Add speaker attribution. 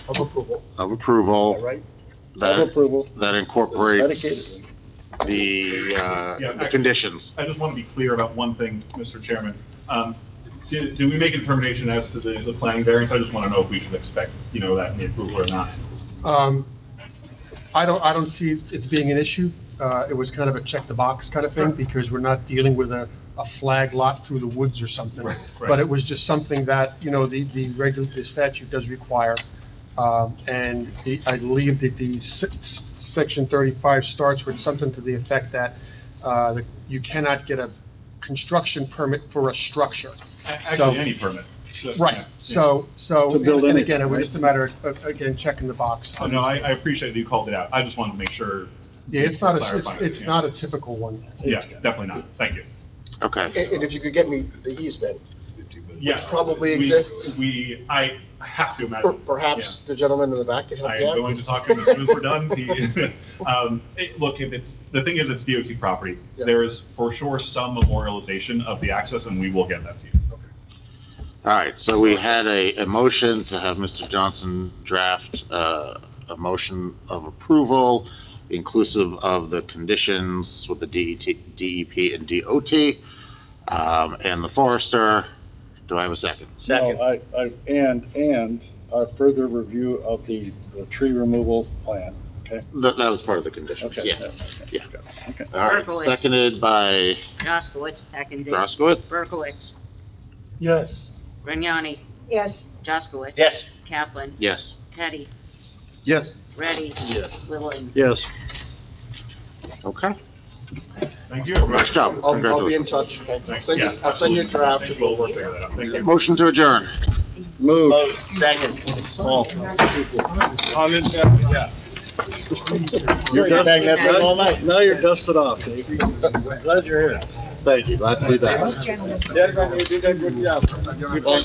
Speaker 1: of approval,
Speaker 2: of
Speaker 1: all
Speaker 2: approval
Speaker 1: right?
Speaker 3: Of
Speaker 2: that,
Speaker 3: approval.
Speaker 2: that incorporates the, uh,
Speaker 4: Yeah,
Speaker 2: the
Speaker 4: I-
Speaker 2: conditions.
Speaker 4: I just want to be clear about one thing, Mr. Chairman. Um, Did did we make a determination as to the the planning variance? I just want to know if we should expect, you know, that in the approval or not.
Speaker 1: Um, I don't, I don't see it being an issue. Uh, It was kind of a check-the-box kind of thing, because we're not dealing with a, a flag lot through the woods or something.
Speaker 4: Right, right.
Speaker 1: But it was just something that, you know, the, the regu, the statute does require. Um, And the, I believe that the six- section 35 starts with something to the effect that uh, that you cannot get a construction permit for a structure.
Speaker 4: A- Actually, any permit. So, yeah,
Speaker 1: Right,
Speaker 4: yeah.
Speaker 1: so, so,
Speaker 3: To build
Speaker 1: and
Speaker 3: anything,
Speaker 1: again, it was
Speaker 3: right?
Speaker 1: just a matter of, again, checking the box.
Speaker 4: Oh, No, I I appreciate that you called it out. I just wanted to make sure.
Speaker 1: Yeah, it's not, a-
Speaker 4: Clarify it,
Speaker 1: it's, it's
Speaker 4: yeah.
Speaker 1: not a typical one.
Speaker 4: Yeah, definitely not. Thank you.
Speaker 2: Okay.
Speaker 5: And and if you could get me the easement,
Speaker 4: Yes.
Speaker 5: Probably
Speaker 4: we-
Speaker 5: exists.
Speaker 4: We, I have to
Speaker 5: per-
Speaker 4: imagine.
Speaker 5: perhaps the gentleman in the back could
Speaker 4: Yeah. I
Speaker 5: help you
Speaker 4: am
Speaker 5: out?
Speaker 4: going to talk to him as soon as we're done. He- Um, it- Look, if it's, the thing is, it's DOT property.
Speaker 5: Yeah.
Speaker 4: There is for sure some memorialization of the access, and we will get that to you.
Speaker 2: All right, so we had a, a motion to have Mr. Johnson draft, uh, a motion of approval inclusive of the conditions with the E DET, DEP and DOT, um, and the forester. Do I have a second?
Speaker 3: Second. I, I, and, and a further review of the, the tree removal plan, okay?
Speaker 2: That, that was part of the conditions,
Speaker 3: Okay.
Speaker 2: yeah. yeah.
Speaker 3: Okay.
Speaker 2: All right,
Speaker 6: Berkowitz.
Speaker 2: seconded by
Speaker 6: Jaskowitz, seconded.
Speaker 2: Groskowitz?
Speaker 6: Berkowitz,
Speaker 1: Yes.
Speaker 6: Grignani,
Speaker 7: yes,
Speaker 6: Jaskowitz. Kaplan,
Speaker 2: Yes.
Speaker 6: Teddy,
Speaker 3: Yes.
Speaker 6: Ready,
Speaker 3: Yes.
Speaker 6: Littleton.
Speaker 3: Yes.
Speaker 2: Okay.
Speaker 4: Thank you.
Speaker 2: Nice job.
Speaker 5: I'll, I'll be in
Speaker 2: Congratulations.
Speaker 5: touch, okay? I'll
Speaker 4: Thanks.
Speaker 5: send you,
Speaker 4: Yes,
Speaker 5: I'll send you a
Speaker 4: absolutely.
Speaker 5: draft.
Speaker 4: Thank you. We'll work that out. Thank you.
Speaker 2: Motion to adjourn.
Speaker 3: Move.
Speaker 1: Oh.
Speaker 3: You're
Speaker 6: dusting that thing all
Speaker 3: night. Now you're dusted off, Dave. Glad you're here. Thank you, glad to be back.
Speaker 7: gentlemen.
Speaker 3: Yeah, you did a good job.